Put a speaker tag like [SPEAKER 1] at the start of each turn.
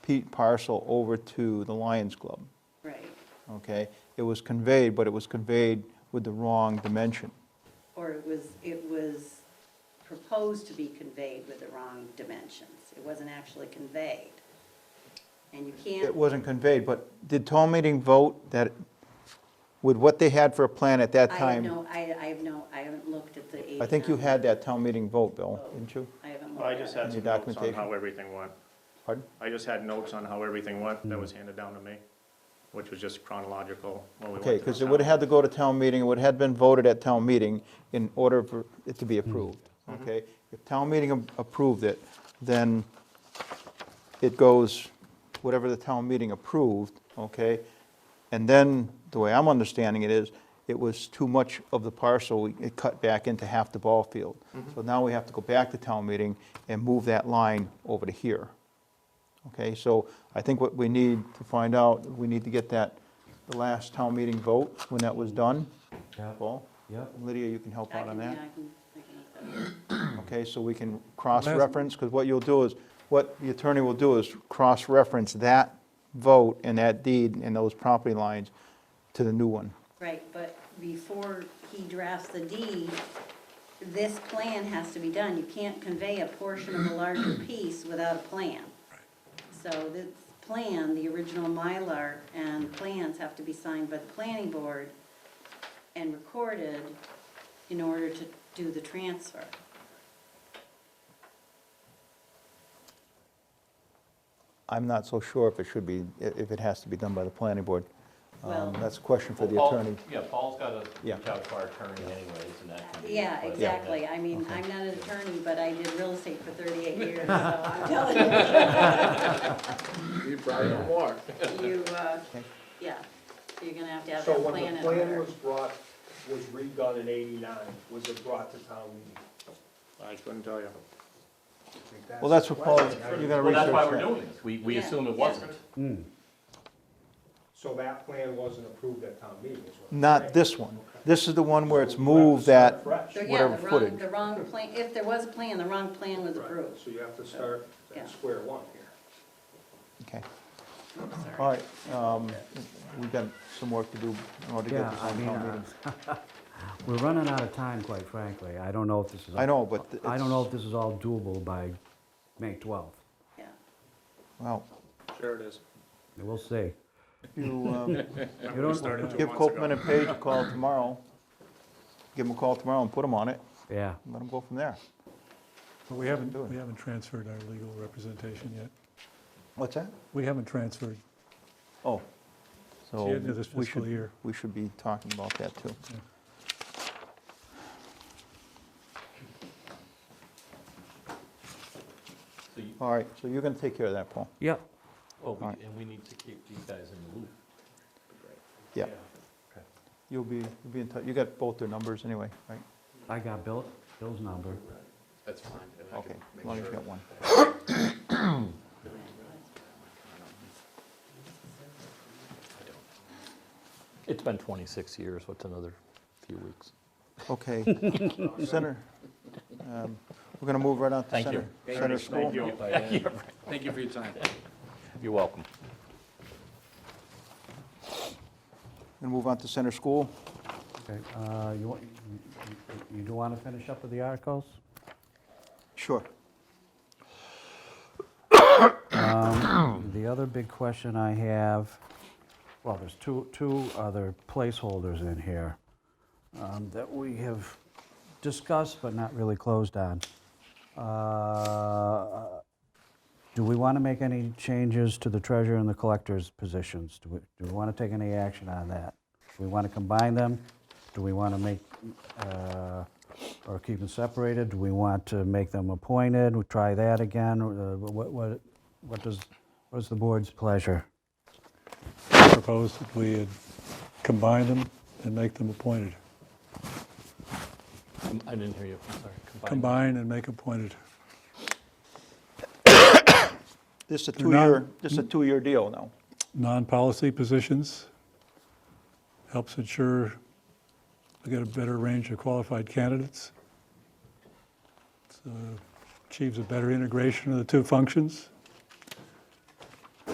[SPEAKER 1] Pete parcel over to the Lions Club,
[SPEAKER 2] right,
[SPEAKER 1] okay? It was conveyed, but it was conveyed with the wrong dimension.
[SPEAKER 2] or it was, it was proposed to be conveyed with the wrong dimensions. It wasn't actually conveyed. And you
[SPEAKER 1] It
[SPEAKER 2] can't,
[SPEAKER 1] wasn't conveyed, but did town meeting vote that, with what they had for a plan at that
[SPEAKER 2] I have
[SPEAKER 1] time?
[SPEAKER 2] no, I, I have no, I haven't looked at the
[SPEAKER 1] I think you
[SPEAKER 2] 89.
[SPEAKER 1] had that town meeting vote, Bill, didn't you?
[SPEAKER 2] I haven't looked
[SPEAKER 3] Well,
[SPEAKER 2] at
[SPEAKER 3] I
[SPEAKER 2] it.
[SPEAKER 3] just had
[SPEAKER 1] Any
[SPEAKER 3] some notes on
[SPEAKER 1] documentation?
[SPEAKER 3] how everything went.
[SPEAKER 1] Pardon?
[SPEAKER 3] I just had notes on how everything went that was handed down to me, which was just chronological when we went to
[SPEAKER 1] Okay,
[SPEAKER 3] the
[SPEAKER 1] because it
[SPEAKER 3] town
[SPEAKER 1] would have had to
[SPEAKER 3] meeting.
[SPEAKER 1] go to town meeting, it would have been voted at town meeting in order for it to be
[SPEAKER 3] Mm-hmm.
[SPEAKER 1] approved, okay? If town meeting a- approved it, then it goes, whatever the town meeting approved, okay? And then, the way I'm understanding it is, it was too much of the parcel, it cut back into half the ball field.
[SPEAKER 4] Mm-hmm.
[SPEAKER 1] So now we have to go back to town meeting and move that line over to here. Okay, so I think what we need to find out, we need to get that, the last town meeting vote, when that was done.
[SPEAKER 4] Yeah.
[SPEAKER 1] Paul?
[SPEAKER 4] Yep.
[SPEAKER 1] Lydia, you can help
[SPEAKER 2] I
[SPEAKER 1] out on
[SPEAKER 2] can, uh, yeah, I
[SPEAKER 1] that.
[SPEAKER 2] can, I can look that up.
[SPEAKER 1] Okay, so we can cross-reference, because what you'll do is, what the attorney will do is cross-reference that vote and that deed and those property lines to the new one.
[SPEAKER 2] Right, but before he drafts the deed, this plan has to be done. You can't convey a portion of a larger piece without a plan. So this plan, the original Mylar and plans have to be signed by the planning board and recorded in order to do the transfer.
[SPEAKER 1] I'm not so sure if it should be, i- if it has to be done by the planning board. Um,
[SPEAKER 2] Well-
[SPEAKER 1] That's a question for
[SPEAKER 5] Well,
[SPEAKER 1] the
[SPEAKER 5] Paul-
[SPEAKER 1] attorney.
[SPEAKER 5] Yeah, Paul's got to
[SPEAKER 1] Yeah.
[SPEAKER 5] reach out to our attorney anyways, and that can be.
[SPEAKER 2] Yeah,
[SPEAKER 5] but-
[SPEAKER 2] exactly. I mean, I'm not an attorney, but I did real estate for 38 years, so I'm telling
[SPEAKER 6] You probably don't want.
[SPEAKER 2] you, you, uh, yeah, you're gonna have to have
[SPEAKER 7] So
[SPEAKER 2] that plan
[SPEAKER 7] when
[SPEAKER 2] in
[SPEAKER 7] the
[SPEAKER 2] order.
[SPEAKER 7] plan was brought, was redone in eighty-nine, was it brought to town meeting?
[SPEAKER 3] I couldn't tell you.
[SPEAKER 7] I think that's-
[SPEAKER 1] Well, that's what Paul, you're gonna
[SPEAKER 5] Well,
[SPEAKER 1] research
[SPEAKER 5] that's why we're
[SPEAKER 1] that.
[SPEAKER 5] doing this. We, we
[SPEAKER 2] Yeah,
[SPEAKER 5] assume it
[SPEAKER 2] yeah.
[SPEAKER 5] wasn't.
[SPEAKER 7] So that plan wasn't approved at town meeting, is what I'm
[SPEAKER 1] Not
[SPEAKER 7] saying.
[SPEAKER 1] this one. This is the one where it's
[SPEAKER 7] So we'll have to
[SPEAKER 1] moved
[SPEAKER 7] start
[SPEAKER 1] that,
[SPEAKER 7] fresh.
[SPEAKER 2] So, yeah,
[SPEAKER 1] whatever
[SPEAKER 2] the wrong-
[SPEAKER 1] footage.
[SPEAKER 2] The wrong plan, if there was a plan, the wrong plan was
[SPEAKER 7] Right,
[SPEAKER 2] approved.
[SPEAKER 7] So you have to start
[SPEAKER 2] Yeah.
[SPEAKER 7] at square one here.
[SPEAKER 1] okay.
[SPEAKER 2] Oops, sorry.
[SPEAKER 1] All right, um, we've got some work to do in order to
[SPEAKER 4] Yeah,
[SPEAKER 1] get this
[SPEAKER 4] I
[SPEAKER 1] on
[SPEAKER 4] mean,
[SPEAKER 1] town meeting.
[SPEAKER 4] uh, we're running out of time, quite frankly. I don't know if this is.
[SPEAKER 1] I know, but
[SPEAKER 4] I don't know if
[SPEAKER 1] it's-
[SPEAKER 4] this is all doable by May 12th.
[SPEAKER 2] Yeah.
[SPEAKER 1] Well,
[SPEAKER 3] Sure it is.
[SPEAKER 4] We'll see.
[SPEAKER 1] you, um,
[SPEAKER 4] You don't-
[SPEAKER 1] give Copman and Page a call tomorrow, give them a call tomorrow and put them on it,
[SPEAKER 4] Yeah.
[SPEAKER 1] and let them go from there.
[SPEAKER 8] But we haven't,
[SPEAKER 1] doing
[SPEAKER 8] we haven't transferred our legal representation yet.
[SPEAKER 1] What's that?
[SPEAKER 8] We haven't transferred.
[SPEAKER 1] Oh,
[SPEAKER 8] It's
[SPEAKER 1] so
[SPEAKER 8] the end of this
[SPEAKER 1] we
[SPEAKER 8] fiscal
[SPEAKER 1] should,
[SPEAKER 8] year.
[SPEAKER 1] we should be talking about that too.
[SPEAKER 5] So you-
[SPEAKER 1] All right, so you're gonna take care of that, Paul?
[SPEAKER 4] Yeah.
[SPEAKER 5] Well, we-
[SPEAKER 1] All right.
[SPEAKER 5] and we need to keep these guys in the loop.
[SPEAKER 1] Yeah. You'll be, you'll be in touch, you got both their numbers anyway, right?
[SPEAKER 4] I got Bill, Bill's number.
[SPEAKER 5] That's fine. and I
[SPEAKER 1] Okay,
[SPEAKER 5] can
[SPEAKER 1] as
[SPEAKER 5] make
[SPEAKER 1] long as you
[SPEAKER 5] sure.
[SPEAKER 1] got one.
[SPEAKER 9] It's been 26 years, what's another few weeks?
[SPEAKER 1] Okay. Center, um, we're gonna move right on to
[SPEAKER 5] Thank you.
[SPEAKER 1] center, center school.
[SPEAKER 3] Thank you.
[SPEAKER 5] Thank you for your time.
[SPEAKER 9] You're welcome.
[SPEAKER 1] Gonna move on to center school.
[SPEAKER 4] Okay. uh, You want, you- you- you do want to finish up with the articles?
[SPEAKER 1] Sure.
[SPEAKER 4] Um, The other big question I have, well, there's two, two other placeholders in here um, that we have discussed but not really closed on. Uh, Do we want to make any changes to the treasurer and the collector's positions? Do we, do we want to take any action on that? Do we want to combine them? Do we want to make, uh, or keep them separated? Do we want to make them appointed? We Try that again? Uh, What, what, what does, what is the board's pleasure?
[SPEAKER 8] Proposed that we had combined them and make them appointed.
[SPEAKER 9] Um, I didn't hear you, I'm sorry. Combined.
[SPEAKER 8] Combine and make appointed.
[SPEAKER 1] This is a
[SPEAKER 8] They're not-
[SPEAKER 1] two-year, this is a two-year deal now.
[SPEAKER 8] Non-policy positions helps ensure we get a better range of qualified uh, candidates. So Achieves a better integration of the two functions.